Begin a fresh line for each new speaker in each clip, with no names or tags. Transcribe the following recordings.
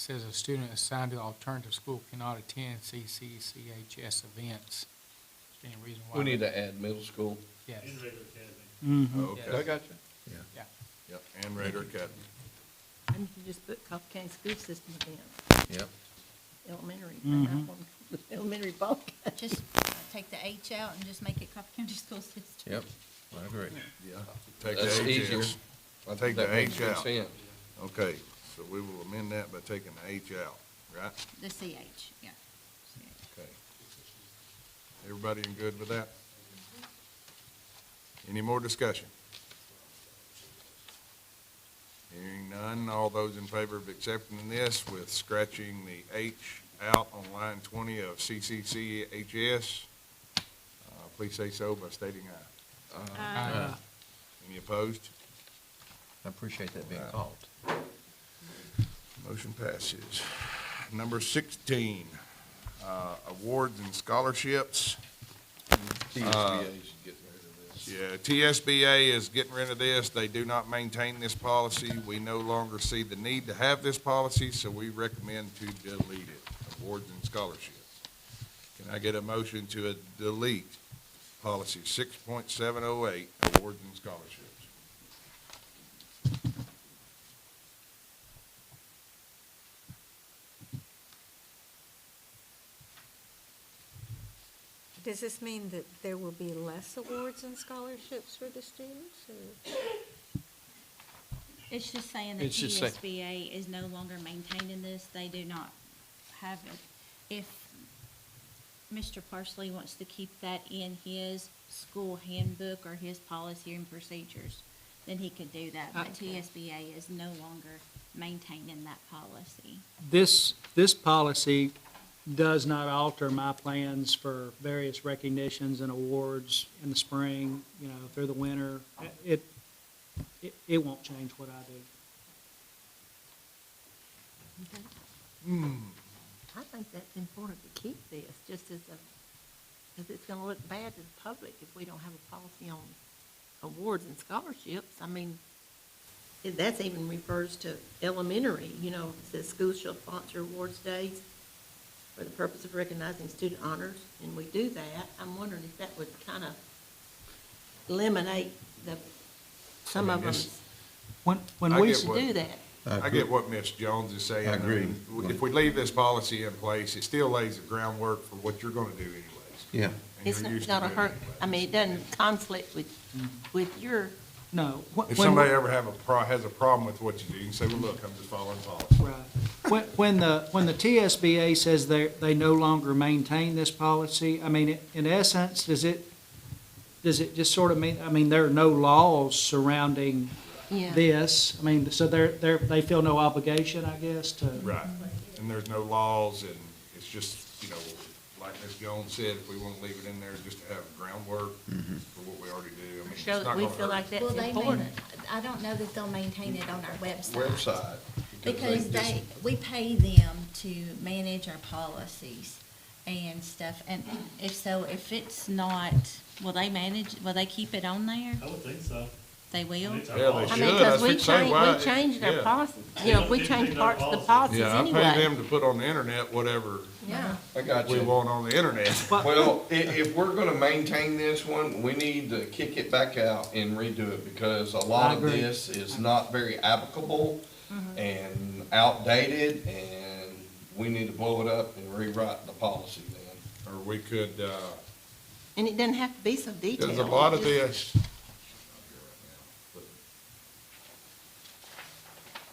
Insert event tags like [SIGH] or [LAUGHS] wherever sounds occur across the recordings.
says a student assigned to the alternative school cannot attend CCCHS events. Is there Any reason why?
We need to add middle school.
Yes,
in regular academy.
Yes. I
Okay,
got you.
yeah.
yep, and Raider Academy,
And you can just put Coffee County School System event,
yep.
elementary, right?
Mm-hmm.
That one, [LAUGHS] elementary ball game.
Just take the H out and just make it Coffee County [LAUGHS] School System.
Yep, I agree. Yeah. Take
That's
the H
easier.
out.
I
Take
think that
the
makes
H
good
out.
sense.
Okay, so we will amend that by taking the H out, right?
The CH, yeah.
Okay. Everybody in good with that? Any more discussion? Hearing none, all those in favor of accepting this with scratching the H out on line twenty of CCCHS, uh, please say so by stating aye.
Uh,
Any opposed?
I appreciate that being called.
Motion passes. Number sixteen, uh, awards and scholarships.
TSBA should get rid of this.
Yeah, TSBA is getting rid of this. They do not maintain this policy. We no longer see the need to have this policy, so we recommend to delete it, awards and scholarships. Can I get a motion to uh, delete policy six point seven oh eight, awards and scholarships?
Does this mean that there will be less awards and scholarships for the students? or-
It's just saying that
It's just say-
TSBA is no longer maintaining this. They do not have it. If Mr. Parsley wants to keep that in his school handbook or his policy and procedures, then he could do that. But
Okay.
TSBA is no longer maintaining that policy.
This, this policy does not alter my plans for various recognitions and awards in the spring, you know, through the winter. It, it, it won't change what I do.
I think that's important to keep this, just as a, because it's gonna look bad to the public if we don't have a policy on awards and scholarships. I mean, if that's even refers to elementary, you know, it says schools shall sponsor awards days for the purpose of recognizing student honors, and we do that. I'm wondering if that would kind of eliminate the, some
I mean,
of them
this-
When, when
I
we,
get
to do that.
I get what Ms. Jones is saying.
I agree.
mean, If we leave this policy in place, it still lays the groundwork for what you're gonna do anyways.
Yeah.
and
It's
you're
not
used to
gonna
doing
hurt,
anyways.
I mean, it doesn't conflict with, with your,
no. wh-
If
when-
somebody ever have a pro, has a problem with what you do, you can say, well, look, I'm just following policy.
Right. When, when the, when the TSBA says they, they no longer maintain this policy, I mean, in essence, does it, does it just sort of mean, I mean, there are no laws surrounding
yeah.
this? I mean, so they're, they're, they feel no obligation, I guess, to.
Right. And there's no laws and it's just, you know, like Ms. Jones said, if we want to leave it in there just to have groundwork
Mm-hmm.
for what we already do, I mean, it's
show
not
that
gonna
we feel
hurt.
like that's important.
I don't know that they'll maintain it on our
Website.
Because
just-
they, we pay them to manage our policies and stuff, and if so, if it's not, will they manage, will they keep it on there?
I would think so.
They will?
mean, it's our
Yeah, they
policy.
I
should.
mean,
that's
because we
what I'm saying,
changed,
why-
we changed our
yeah.
policy, you know, we
They
changed
changed our
parts of the
policies.
policies
Yeah, I pay them
anyway.
to put on the internet whatever
Yeah.
I got
we
you.
want on the internet.
Well, i- if we're gonna maintain this one, we need to kick it back out and redo it because a lot
I
of
agree.
this is not very applicable and outdated and we need to blow it up and rewrite the policy then.
Or we could, uh,
And it doesn't have to be so detailed.
there's a lot of
Just-
this.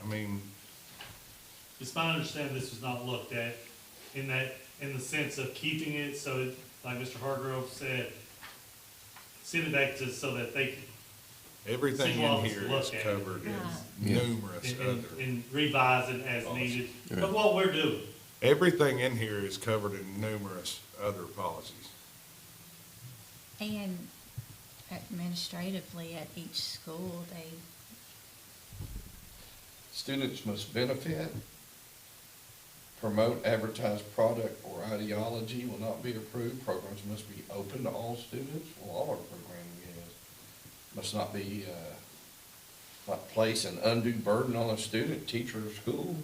I mean,
It's my understanding this was not looked at in that, in the sense of keeping it so, it- like Mr. Hargrove said, send it back to, so that they can,
everything
single
in
office
here is
look at it.
covered
Right.
in numerous
and-
other.
And, and revise it as needed, but what we're doing.
Everything in here is covered in numerous other policies.
And administratively at each school, they,
Students must benefit, promote advertised product or ideology will not be approved, programs must be open to all students, well, all our programming is, must not be, uh, not place an undue burden on a student, teacher, or school.